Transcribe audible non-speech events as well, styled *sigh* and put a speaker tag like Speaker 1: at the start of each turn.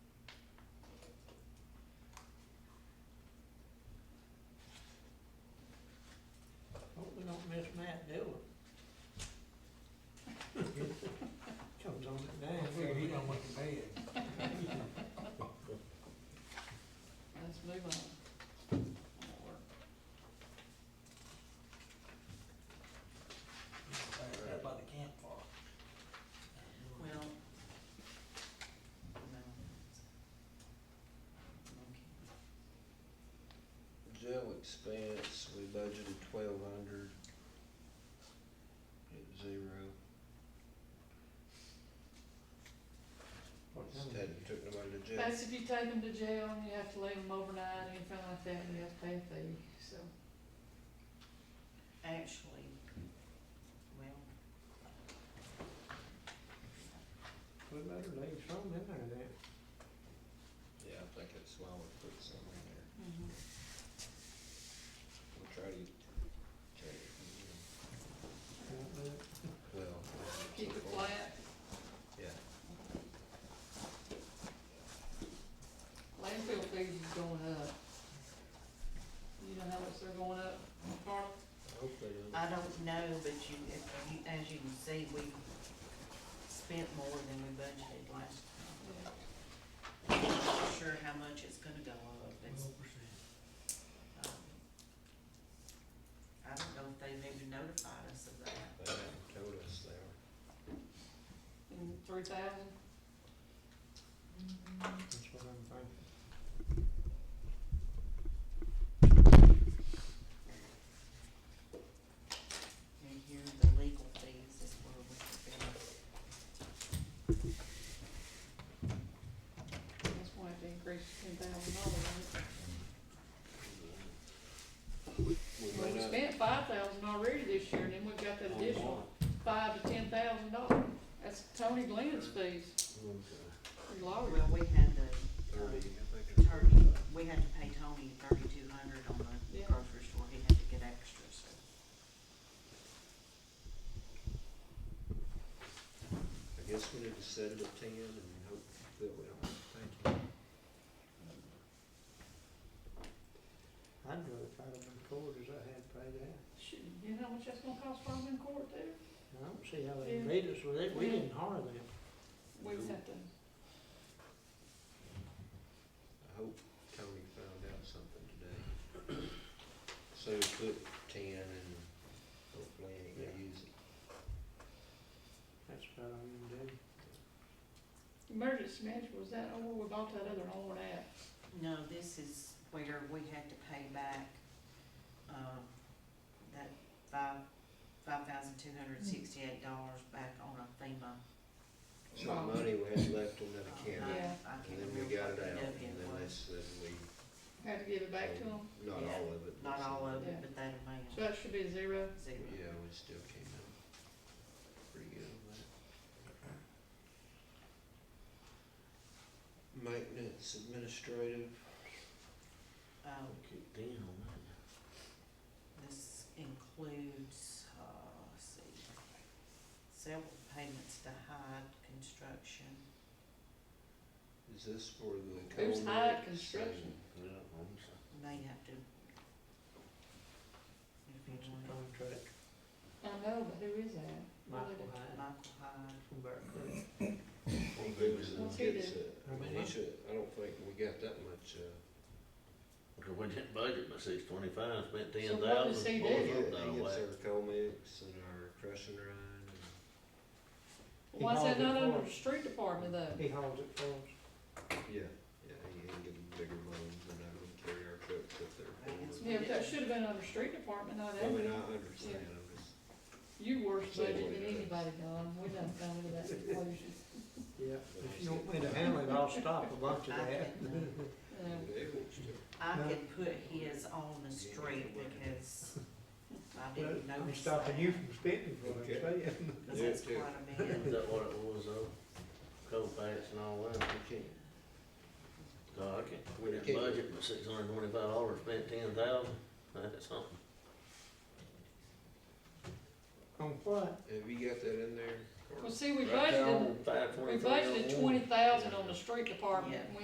Speaker 1: expense, we budgeted twelve hundred. At zero, instead it took nobody to jail.
Speaker 2: That's if you take them to jail and you have to leave them overnight, anything like that, you have to pay a fee, so.
Speaker 3: Actually, well,
Speaker 4: We better leave some in there then.
Speaker 1: Yeah, I think it's why we put some in there.
Speaker 2: Mm-hmm.
Speaker 1: We'll try to, try to,
Speaker 4: Won't do it.
Speaker 1: well.
Speaker 2: Keep it flat,
Speaker 1: Yeah,
Speaker 2: landfill fees is going up. You know how much they're going up, Carl?
Speaker 1: hopefully, it'll-
Speaker 3: I don't know, but you, if you, as you can see, we spent more than we budgeted last time. Not Sure how much it's gonna go up, it's, um, I don't know if they've even notified us of that.
Speaker 1: they haven't told us they are.
Speaker 2: And three thousand,
Speaker 4: That's what I'm thinking.
Speaker 3: And here the legal fees is where we have been,
Speaker 2: that's why it increased ten thousand dollars. Well,
Speaker 1: We
Speaker 2: we
Speaker 1: may not-
Speaker 2: spent five thousand already this year, and then we got that additional five to ten thousand dollars. That's Tony Glenn's fees, for lawyers.
Speaker 3: Oh, well, we had the, um,
Speaker 1: Thirty, I think it's
Speaker 3: attorney,
Speaker 1: thirty-five.
Speaker 3: we had to pay Tony thirty-two hundred on the
Speaker 2: Yeah.
Speaker 3: grocery store, he had to get extra, so.
Speaker 1: I guess we need to set it at ten and hope that we don't have to pay.
Speaker 4: I'd rather fight them in court as I had paid that.
Speaker 2: Shoot, you know how much that's gonna cost for them in court there?
Speaker 4: I don't see how they
Speaker 2: Yeah.
Speaker 4: beat us with it. We
Speaker 2: Yeah.
Speaker 4: didn't hire them.
Speaker 2: We would have to,
Speaker 1: I hope Tony found out something today. So put ten and hopefully he ain't gonna use it.
Speaker 4: That's what I'm gonna do.
Speaker 2: emergency management, was that over, we bought that other one out?
Speaker 3: No, this is where we had to pay back, uh, that five, five thousand two hundred sixty-eight dollars back on a FEMA. um,
Speaker 1: Some money we had left in that account,
Speaker 2: Yeah.
Speaker 3: I
Speaker 1: and
Speaker 3: can't
Speaker 1: then
Speaker 3: remember
Speaker 1: we got
Speaker 3: what
Speaker 1: it
Speaker 3: the
Speaker 1: out,
Speaker 3: W
Speaker 1: and then they
Speaker 3: was,
Speaker 1: said we,
Speaker 2: Had to give it back
Speaker 1: Oh.
Speaker 2: to them,
Speaker 1: not
Speaker 3: Yeah,
Speaker 1: all of it. but
Speaker 3: not all
Speaker 1: some-
Speaker 3: of it,
Speaker 2: Yeah.
Speaker 3: but that amount,
Speaker 2: so that should be zero.
Speaker 3: zero.
Speaker 1: Yeah, we still came out pretty good on that. Maintenance administrative,
Speaker 3: Um,
Speaker 4: Keep down on that.
Speaker 3: This includes, uh, let's see, several payments to Hyde Construction.
Speaker 1: is this for the
Speaker 2: Who's
Speaker 1: culvert?
Speaker 2: Hyde Construction?
Speaker 3: and They have to. If
Speaker 4: It's
Speaker 3: you
Speaker 4: a
Speaker 3: want,
Speaker 4: contract.
Speaker 2: I know, but who is that?
Speaker 4: Michael
Speaker 3: it,
Speaker 4: Hyde
Speaker 3: Michael Hyde.
Speaker 4: from Bear Creek.
Speaker 1: Well, who was it
Speaker 2: Let's
Speaker 1: that
Speaker 2: see
Speaker 1: gets it? I mean, he should, I don't think we got that much, uh,
Speaker 5: Cause we didn't budget by six twenty-five, spent
Speaker 2: So
Speaker 5: ten
Speaker 2: what does
Speaker 5: thousand,
Speaker 2: he
Speaker 5: boy,
Speaker 2: do?
Speaker 1: he
Speaker 5: we're
Speaker 1: gets
Speaker 5: out of whack.
Speaker 1: our coal mix and our crushing rind and.
Speaker 4: He
Speaker 2: Why is
Speaker 4: hauled
Speaker 2: that
Speaker 4: it for
Speaker 2: not under the
Speaker 4: us.
Speaker 2: street department though?
Speaker 4: He hauls it for us.
Speaker 1: Yeah, yeah, he ain't getting bigger loans than I would carry our trucks up there.
Speaker 3: I guess
Speaker 1: forward.
Speaker 2: Yeah, but that should have been under street department, not
Speaker 1: I mean,
Speaker 2: under,
Speaker 1: I understand, I'm just,
Speaker 2: you worse
Speaker 1: Say
Speaker 2: budget
Speaker 1: what
Speaker 2: than
Speaker 1: it is.
Speaker 2: anybody, Don, we done come
Speaker 1: *laughs*
Speaker 2: to that conclusion.
Speaker 4: Yeah,
Speaker 1: But
Speaker 4: if you
Speaker 1: he's
Speaker 4: want me
Speaker 1: getting-
Speaker 4: to handle it, I'll stop a bunch of
Speaker 3: I
Speaker 4: that.
Speaker 3: can,
Speaker 2: Um,
Speaker 1: they want to.
Speaker 3: I
Speaker 4: No.
Speaker 3: can put his on the street because I didn't
Speaker 4: But I'm
Speaker 3: notice that.
Speaker 4: stopping you from spending for it, I'm
Speaker 1: Okay.
Speaker 4: saying.
Speaker 3: Cause that's
Speaker 1: Yeah, too.
Speaker 3: quite a
Speaker 5: Is
Speaker 3: bit.
Speaker 5: that what it was though? Coal patch and all that,
Speaker 1: You can't,
Speaker 5: God, I can't, we
Speaker 1: Okay.
Speaker 5: didn't budget by six hundred and twenty-five dollars, spent ten thousand, that's something.
Speaker 4: On what?
Speaker 1: have you got that in there? Carl?
Speaker 2: Well, see, we
Speaker 5: Right there
Speaker 2: budgeted,
Speaker 5: on five
Speaker 2: we
Speaker 5: twenty-three oh one.
Speaker 2: budgeted twenty thousand on the street department,
Speaker 3: Yeah.
Speaker 2: and we